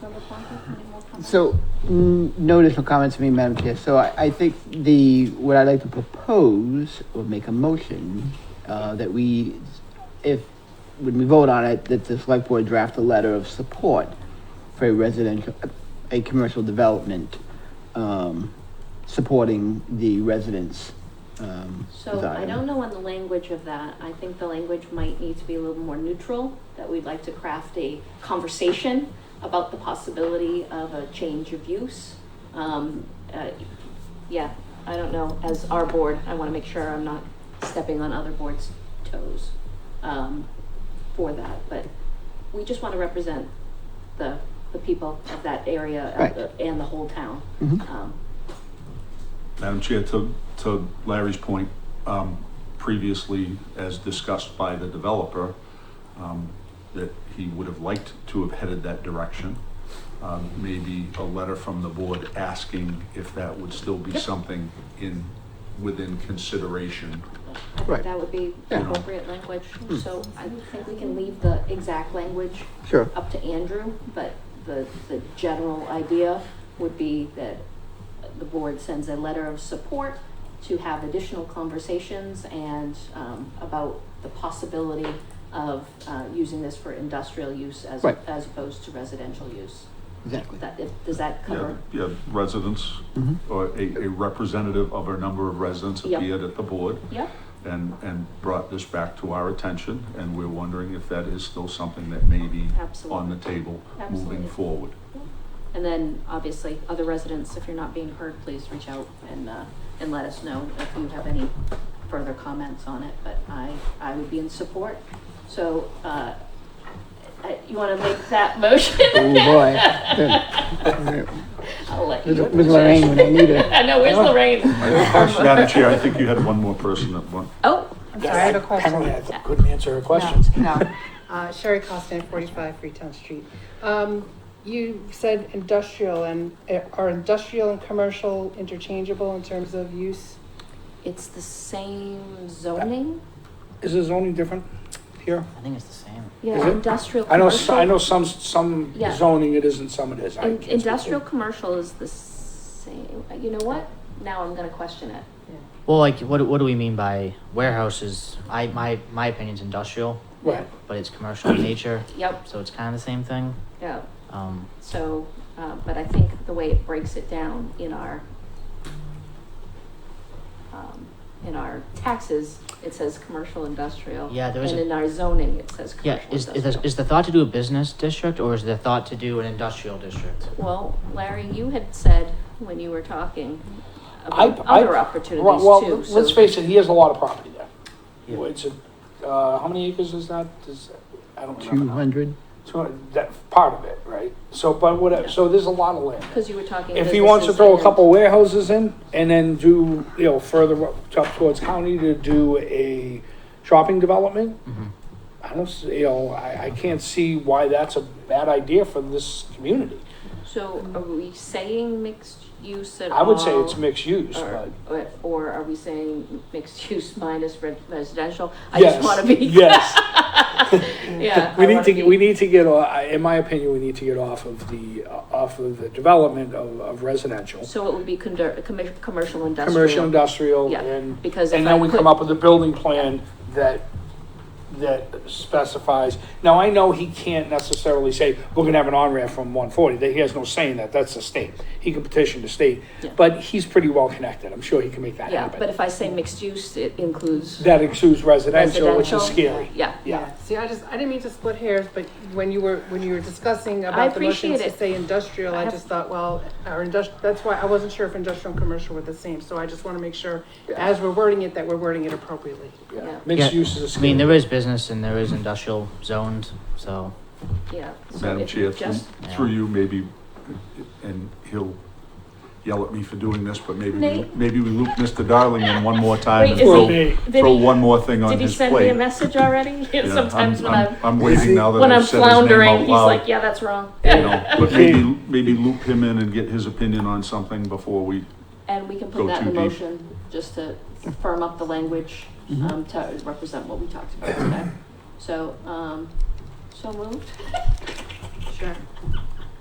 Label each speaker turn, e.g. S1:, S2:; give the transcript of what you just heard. S1: Member Plonka, any more comments?
S2: So, n- no additional comments from me, Madam Chair. So I, I think the, what I'd like to propose or make a motion, uh, that we, if, when we vote on it, that the select board draft a letter of support for a residential, a commercial development, um, supporting the residents, um,
S1: So I
S2: desire.
S1: don't know on the language of that. I think the language might need to be a little more neutral, that we'd like to craft a conversation about the possibility of a change of use. Um, uh, yeah, I don't know, as our board, I wanna make sure I'm not stepping on other boards' toes, um, for that, but we just wanna represent the, the people of that area of
S2: Right.
S1: the- and the whole town.
S2: Mhm.
S1: Um,
S3: Madam Chair, to, to Larry's point, um, previously, as discussed by the developer, um, that he would have liked to have headed that direction. Um, maybe a letter from the board asking if that would still be something in, within consideration.
S1: I think
S2: Right.
S1: that would be
S2: Yeah. Hmm.
S1: appropriate language, so I think we can leave the exact language
S2: Sure.
S1: up to Andrew, but the, the general idea would be that the board sends a letter of support to have additional conversations and, um, about the possibility of, uh, using this for industrial use as,
S2: Right.
S1: as opposed to residential use.
S2: Exactly.
S1: That, if- does that
S3: Yeah,
S1: cover?
S3: yeah, residents,
S2: Mhm.
S3: or a, a representative of a number of residents
S1: Yeah.
S3: appeared at the board
S1: Yep,
S3: and, and brought this back to our attention, and we're wondering if that is still something that may be on the
S1: absolutely.
S3: table
S1: Absolutely.
S3: moving forward.
S1: And then, obviously, other residents, if you're not being heard, please reach out and, uh, and let us know if you have any further comments on it, but I, I would be in support. So, uh, I- you wanna make that motion?
S2: Oh, boy.
S1: I'll let you.
S2: With with Lorraine when I need her.
S1: I know, where's Lorraine?
S3: Madam Chair, I think you had one more person that one.
S1: Oh,
S4: Yeah, I have a
S5: Penalty, I
S4: question.
S5: th- couldn't answer her questions.
S4: No, no. Uh, Sherry Constant, 45 Freetown Street. Um, You said industrial and uh, are industrial and commercial interchangeable in terms of use?
S1: it's the same zoning?
S5: Is the zoning different here?
S6: I think it's the same.
S5: Is
S1: Yeah,
S5: it?
S1: industrial,
S5: I know, s-
S1: commercial.
S5: I know some, some
S1: Yeah.
S5: zoning it is and some it is. I
S1: In-
S5: can't speak to it.
S1: Industrial, commercial is the same, you know what? Now I'm gonna question it.
S6: Well, like, what, what do we mean by warehouses? I, my, my opinion's industrial,
S5: Right,
S6: but it's commercial in nature,
S1: Yep,
S6: so it's kind of the same thing.
S1: yep.
S6: Um,
S1: So, uh, but I think the way it breaks it down in our, um, in our taxes, it says commercial industrial.
S6: Yeah, there was
S1: And
S6: a-
S1: in our zoning, it says
S6: yeah,
S1: commercial
S6: is, is, the,
S1: industrial.
S6: is the thought to do a business district or is the thought to do an industrial district?
S1: Well, Larry, you had said when you were talking
S5: I-
S1: about
S5: I-
S1: other opportunities
S5: well, well,
S1: too, so.
S5: let's face it, he has a lot of property there.
S6: Yeah.
S5: It's a, uh, how many acres is that? Is, I don't remember.
S2: Two
S5: now.
S2: hundred.
S5: Two hundred, that's part of it, right? So, but
S1: Yeah.
S5: whatever, so there's a lot of land.
S1: Cause you were talking.
S5: If he wants to
S1: businesses
S5: throw a
S1: and-
S5: couple warehouses in and then do, you know, further up up towards county to do a shopping development,
S6: Mhm.
S5: I don't, s- you know, I, I can't see why that's a bad idea for this community.
S1: So are we saying mixed use at all?
S5: I would say it's mixed use,
S1: Or,
S5: but.
S1: or- or are we saying mixed use minus re- residential? I
S5: yes,
S1: just wanna be.
S5: Yes,
S1: Yeah.
S5: we
S1: I
S5: need
S1: wanna
S5: to,
S1: be-
S5: we need to get, o- I- in my opinion, we need to get off of the, uh, off of the development of, of residential,
S1: So it would be condor, commercial, commercial industrial.
S5: commercial, industrial,
S1: Yeah.
S5: and
S1: Because if
S5: And then
S1: I
S5: we come
S1: put,
S5: up with a building plan that, that specifies, now I know he can't necessarily say, we're gonna have an on-ramp from one forty, that he has no saying that, that's the state. He can petition the state,
S1: Yeah.
S5: but he's pretty well connected, I'm sure he can make that
S1: yeah, but
S5: happen.
S1: if I say mixed use, it includes,
S5: That exudes residential, which
S1: Residential.
S5: is scary.
S1: yeah.
S5: Yeah,
S4: See, I just, I didn't mean to split hairs, but when you were, when you were discussing
S1: I
S4: about the motions
S1: appreciate
S4: to
S1: it.
S4: say industrial,
S1: I
S4: I
S1: have-
S4: just thought, well, our industrial, that's why I wasn't sure if industrial and commercial were the same. So I just want to make sure, as we're wording it, that we're wording it appropriately.
S1: Yeah.
S5: yeah, mixed
S6: Yeah,
S5: use is a
S6: I mean,
S5: scary.
S6: there is business and there is industrial zoned, so
S1: yeah. So
S3: Madam
S1: if
S3: Chair, mm-hmm. through,
S1: just-
S3: through you, maybe, and he'll yell at me for doing this, but maybe, we-
S1: Nate?
S3: maybe we loop Mr. Darling in one more time and
S1: Wait, is
S5: Well,
S3: throw,
S5: they-
S1: Did
S3: throw
S1: he-
S3: one more thing on
S1: Did he
S3: his
S1: send me a
S3: plate.
S1: message already?
S3: Yeah,
S1: Sometimes
S3: I'm-
S1: when
S3: I'm-
S1: I'm,
S3: I'm waiting now that
S1: when I'm
S3: I've said his name
S1: floundering,
S3: out
S1: he's
S3: loud.
S1: like, yeah, that's wrong.
S3: you know, But maybe, maybe loop him in and get his opinion on something before we,
S1: And we can
S3: Go
S1: put that in
S3: too
S1: the
S3: deep.
S1: motion, just to firm up the language,
S5: Mm-hmm.
S1: um, to represent what we talked about today. So, um, so moved.
S4: Sure.